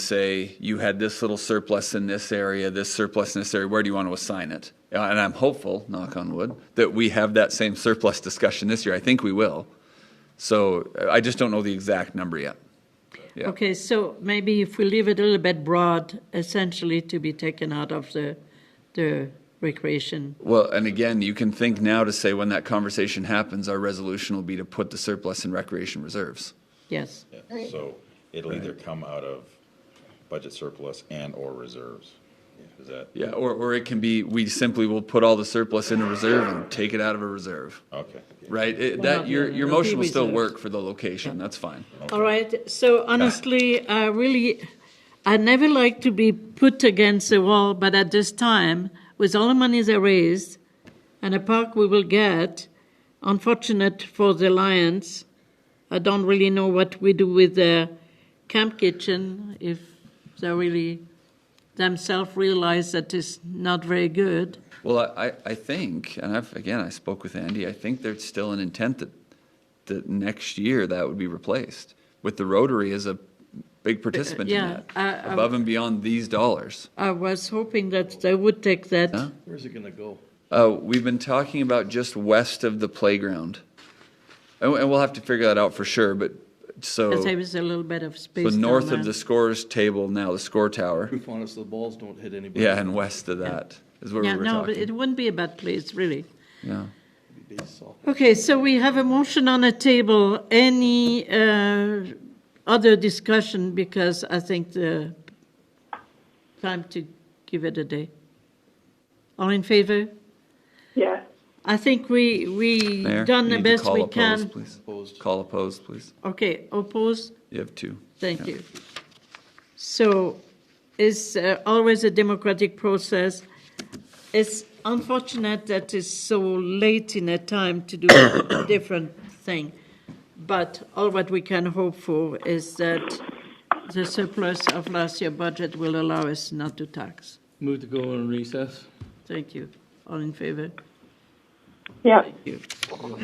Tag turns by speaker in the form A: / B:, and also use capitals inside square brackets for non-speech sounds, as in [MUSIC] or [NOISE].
A: say, you had this little surplus in this area, this surplus in this area, where do you want to assign it? Uh, And I'm hopeful, knock on wood, that we have that same surplus discussion this year. I think we will. So uh, I just don't know the exact number yet. Yeah.
B: Okay, so maybe if we leave it a little bit broad, essentially to be taken out of the, the recreation.
A: Well, and again, you can think now to say when that conversation happens, our resolution will be to put the surplus in recreation reserves.
B: Yes,
C: Yeah, So it'll either come out of budget surplus and/or reserves. Is that,
A: Yeah, or, or it can be, we simply will put all the surplus in a reserve and take it out of a reserve,
C: okay.
A: right? It,
B: Well,
A: that,
B: not
A: your,
B: really.
A: your
B: It'll be
A: motion will still
B: reserved.
A: work for the location, that's fine.
B: all right, so honestly, I really, I never like to be put against the wall, but at this time, with all the monies I raised and the park we will get, unfortunate for the Lions, I don't really know what we do with the camp kitchen, if they really themselves realize that it's not very good.
A: Well, I, I- I think, and I've, again, I spoke with Andy, I think there's still an intent that, that next year that would be replaced with the Rotary as a big participant in
B: yeah, uh, um,
A: that,
B: I- I-
A: above and beyond these dollars.
B: I was hoping that they would take that.
A: Huh?
D: Where's it gonna go?
A: Uh, we've been talking about just west of the playground. And, and we'll have to figure that out for sure, but
B: Because there
A: so,
B: is a little bit of
A: so
B: space.
A: north
B: down
A: of the
B: there.
A: scores table now, the score tower.
D: Proof on us, the balls don't hit anybody.
A: Yeah, and west of that is where we
B: Yeah,
A: were
B: no, but it
A: talking.
B: wouldn't be a bad place, really.
A: Yeah.
D: Baseball.
B: Okay, so we have a motion on the table. Any uh, other discussion? Because I think the time to give it a day. All in favor?
E: Yes.
B: I think we we
A: Mayor,
B: done
A: you
B: the
A: need to
B: best
A: call
B: we
A: opposed,
B: can.
A: please.
D: Opposed.
A: Call opposed, please.
B: Okay, opposed.
A: You have two.
B: Thank
A: Yeah.
B: you. So it's uh, always a democratic process. It's unfortunate that it's so late in a time to do [COUGHS] a different thing. But all what we can hope for is that the surplus of last year's budget will allow us not to tax.
D: Move to go on recess.
B: Thank you. All in favor?
E: Yeah.
B: Thank you.